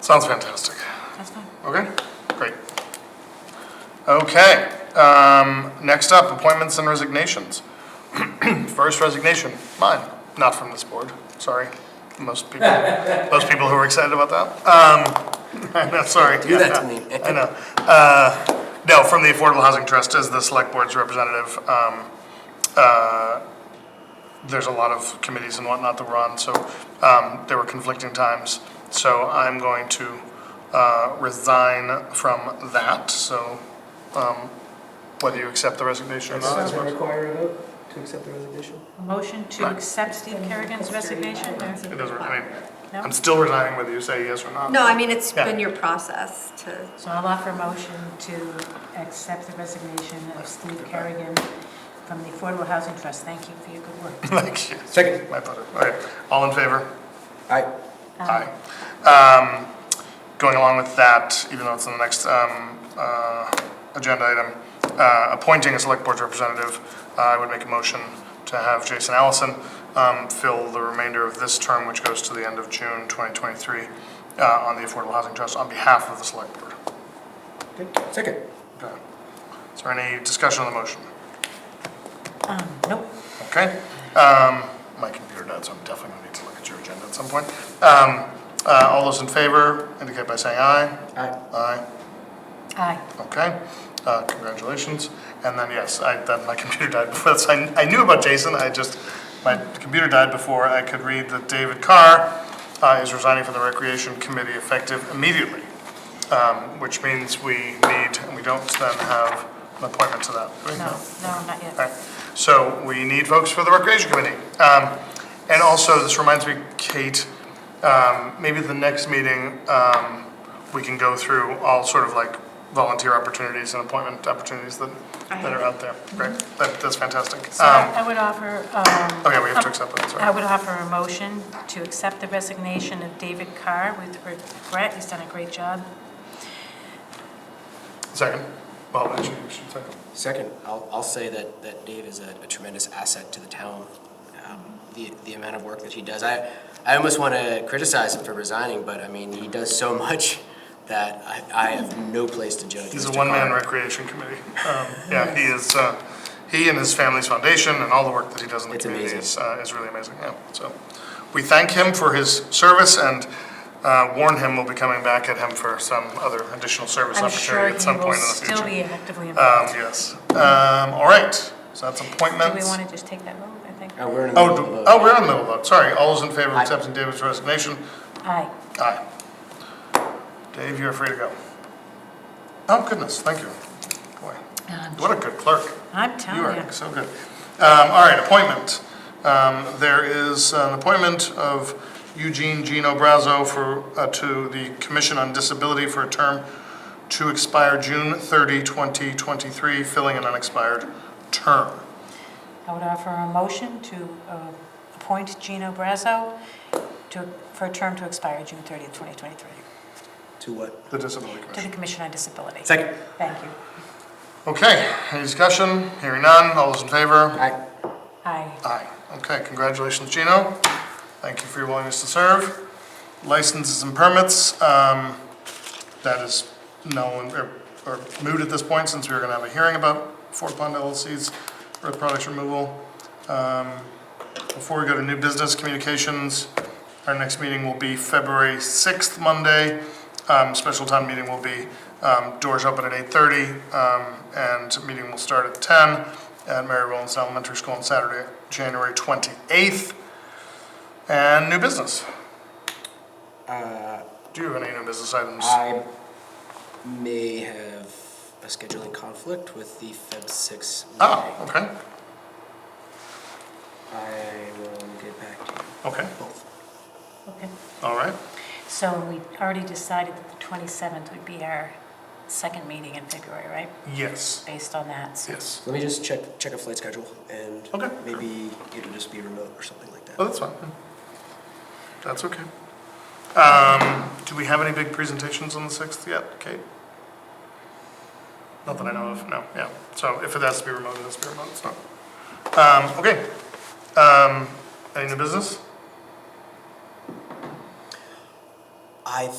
Sounds fantastic. That's fine. Okay, great. Okay, um, next up, appointments and resignations. First resignation, mine, not from this board, sorry. Most people, most people who were excited about that. Um, I'm not sorry. Do that to me. I know. Uh, no, from the Affordable Housing Trust as the select board's representative. Um, uh, there's a lot of committees and whatnot that we're on, so, um, there were conflicting times. So I'm going to, uh, resign from that, so, um, whether you accept the resignation or not. I Does that suppose. require a vote to accept the resignation? A motion to accept Steve Kerrigan's resignation? It doesn't, I mean, No? I'm still resigning whether you say yes or not. No, I mean, it's Yeah. been your process to, So I'll offer a motion to accept the resignation of Steve Kerrigan from the Affordable Housing Trust. Thank you for your good work. Thank you. Second. My pleasure. Okay, all in favor? Aye. Aye. Um, Going along with that, even though it's in the next um, uh, agenda item, uh, appointing a select board representative, uh, I would make a motion to have Jason Allison um, fill the remainder of this term, which goes to the end of June 2023, uh, on the Affordable Housing Trust on behalf of the select board. Okay. Second. Okay. Is there any discussion on the motion? Um, Nope. Okay, um, my computer died, so I'm definitely gonna need to look at your agenda at some point. Um, uh, all those in favor indicate by saying aye. Aye. Aye, Aye. okay, uh, congratulations. And then, yes, I, that, my computer died before, so I, I knew about Jason, I just, my computer died before I could read that David Carr, uh, is resigning from the Recreation Committee effective immediately. Um, which means we need, we don't then have an appointment to that. right? No, no, not All yet. right, so we need folks for the Recreation Committee. Um, And also, this reminds me, Kate, um, maybe the next meeting, um, we can go through all sort of like volunteer opportunities and appointment opportunities that, I that are out there. Great, that, that's fantastic. Mm-hmm. So Um, I would offer, um, Okay, we have to accept that, I sorry. would offer a motion to accept the resignation of David Carr with regret. He's done a great job. Second, well, I should, I should second. Second, I'll, I'll say that, that Dave is a a tremendous asset to the town. Um, The, the amount of work that he does, I, I almost want to criticize him for resigning, but I mean, he does so much that I, I have no place to judge. He's a Mr. one-man Carr. recreation committee. Um, Yeah, he is, uh, he and his family's foundation and all the work that he does in the It's community is, amazing. uh, is really amazing, yeah. So we thank him for his service and uh, warn him we'll be coming back at him for some other additional service I'm sure opportunity at he some will point in the future. still be actively Um, involved. Yes. Um, All right, so that's Do we appointments. want to just take that vote, I think? Uh, We're in the Oh, do- middle of a- oh, we're on the middle vote, sorry. All those in favor of Aye. accepting David's resignation? Aye. Aye. Dave, you're free to go. Oh, goodness, thank you. Boy, what a good clerk. I'm You telling you. are so good. Um, all right, appointment. Um, there is an appointment of Eugene Gino Brazo for, uh, to the Commission on Disability for a term to expire June 30, 2023, filling an unexpired term. I would offer a motion to uh, appoint Gino Brazo to, for a term to expire June 30th, 2023, To what? The Disability to the Commission. Commission on Disability. Second. Thank you. Okay, any discussion? Hearing none, all those in favor? Aye. Aye. Aye. Okay, congratulations, Gino. Thank you for your willingness to serve. Licenses and permits, um, that is known or- or moot at this point since we were gonna have a hearing about Fort Pond LLC's earth products removal. Um, Before we go to new business communications, our next meeting will be February 6th, Monday. Um, Special town meeting will be, um, doors open at 8:30, um, and meeting will start at 10 at Mary Rollins Elementary School on Saturday, January 28th. And new business. Uh, Do you have any new business items? I may have a scheduling conflict with the Feb 6 meeting. Oh, okay, I will get back to you okay, both. Okay. all right. So we already decided that the 27th would be our second meeting in February, right? Yes, Based on that. so- yes. Let me just check, check a flight schedule and Okay. maybe it'll just be remote or something like Oh, that. that's fine. That's okay. Um, do we have any big presentations on the sixth yet, Kate? Not that I know of, no, yeah. So if it has to be remote, it has to be remote, it's not. Um, okay. Um, any new business? I